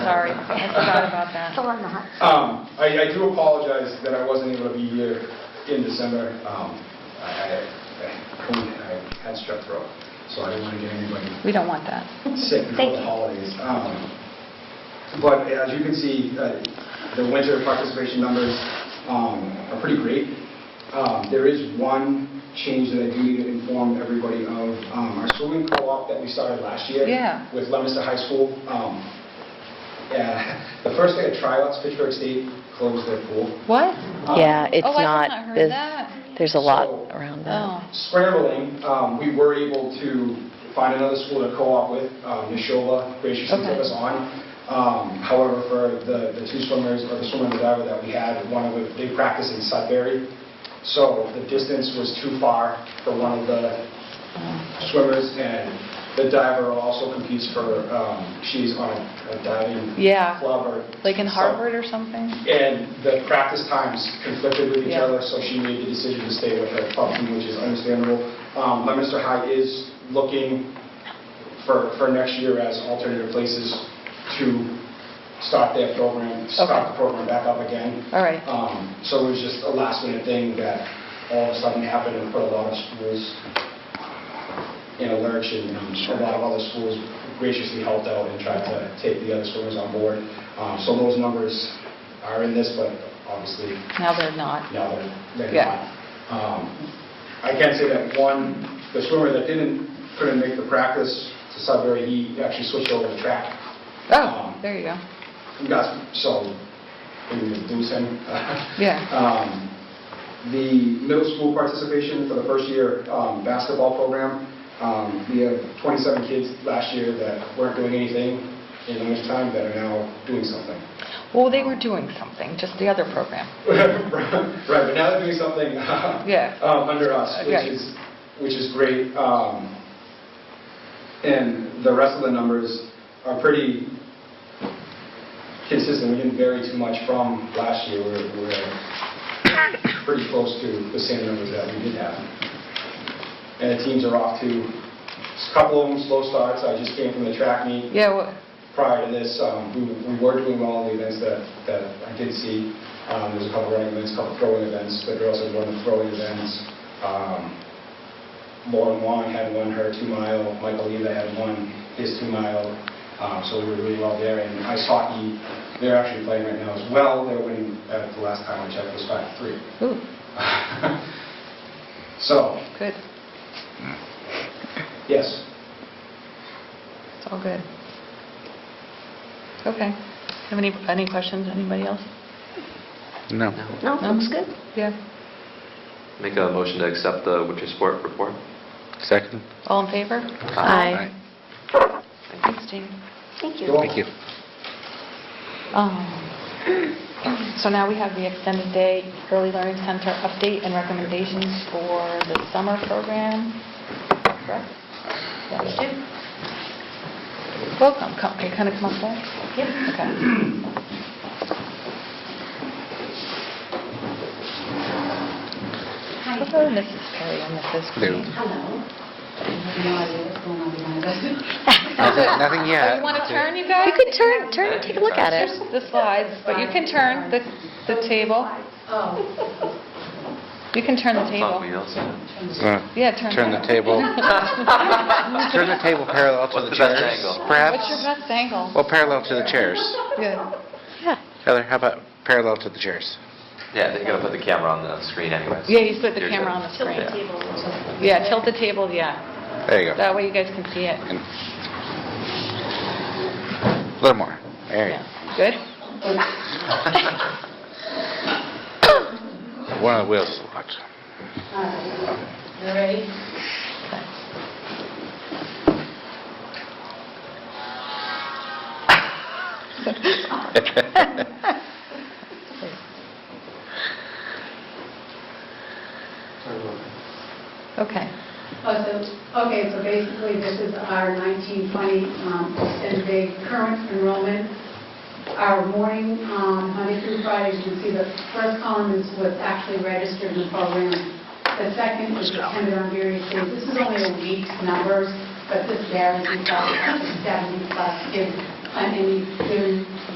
Sorry, I forgot about that. Still on the hot seat. Um, I, I do apologize that I wasn't able to be here in December. Um, I, I- I couldn't- I had strep throat, so I didn't want to get anybody We don't want that. sick Thank before the you. holidays. Um, But as you can see, uh, the winter participation numbers um, are pretty great. Um, There is one change that I do need to inform everybody of. Um, Our swimming co-op that we started last year Yeah. with Leominster High School. um, yeah, The first day of tryouts, Pittsburgh State closed their pool. What? Um, Yeah, it's Oh, I have not, not heard there's- that. there's a lot So- around that. Oh, scrambling, um, we were able to find another school to co-op with. Um, Neshoba graciously took Okay. us on. Um, However, for the the two swimmers, or the swimmer and the diver that we had, one of them, they practiced in Sudbury, so the distance was too far for one of the swimmers, and the diver also competes for, um, she's on a diving yeah, club or... like in some- Harvard or something? and the practice times conflicted with each Yeah. other, so she made the decision to stay with her puppy, which is understandable. Um, Leominster High is looking for, for next year as alternative places to start their program, Okay. start the program back up again. All right, Um, So it was just a last minute thing that all of a sudden happened and put a lot of schools in a lurch and um, a lot of other schools graciously helped out and tried to take the other swimmers on board. Um, So those numbers are in this, but obviously now they're not. now they're, they're Yeah. not. Um, I can say that one, the swimmer that didn't, couldn't make the practice to Sudbury, he actually switched over to track. Oh, there you go. We got, so, we didn't lose him. Yeah, Um, The middle school participation for the first year um, basketball program, um, we have 27 kids last year that weren't doing anything in the winter time that are now doing something. well, they were doing something, just the other program. Right, but now they're doing something Yeah. um, under us, which Okay. is, which is great. Um, And the rest of the numbers are pretty consistent. We didn't vary too much from last year. We're we're pretty close to the same numbers that we did have. And the teams are off to, a couple of them slow starts. I just came from the track meet Yeah, well, prior to this, um, we we were doing well in the events that that I did see. Um, There was a couple running events, a couple throwing events, the girls had won the throwing events. Um, Lauren Wong had won her two-mile, Michael Leva had won his two-mile, Um, so we were really well there. And ice hockey, they're actually playing right now as well. They're winning, uh, the last time I checked, was 5-3. ooh, So, good, yes, it's all good. Okay, have any, any questions, anybody else? No. No, looks good. Yeah, Make a motion to accept the winter sport report. Second? all in favor? Aye. Thanks, Jean. Thank You're you. welcome. Thank you. Um, So now we have the extended day early learning center update and recommendations for the summer program. Correct? Yes, you do. Welcome, come, can you kind of come up there? Yep. Okay. Hello, Mrs. Perry and Mrs. There. Green. Hello. Nothing nothing Oh, yet. you want to turn, you guys? You could turn, turn, and take a look at There's it. the slides, but you can turn the, the table. You can turn the table. Thought we also had- Uh, Yeah, turn. Turn the table, turn the table parallel to What's the the best chairs. angle? What's your Perhaps, best angle? well, parallel to the chairs. Yeah. Yeah. Heather, how about parallel to the chairs? Yeah, they're gonna put the camera on the screen anyways. Yeah, you put the You're camera good. on the screen. Yeah. Yeah, tilt the table, yeah. There you go. That way you guys can see it. And- A little more. There you Yeah. Good? go. One of the wheels is locked. Okay. Oh, so, okay, so basically, this is our 1920 um, extended day current enrollment. Our morning, um, Monday through Friday, you can see the first column is what's actually registered in the program. The second is dependent on various days. This is only a week's numbers, but this varies, we've got 70 plus kids on any given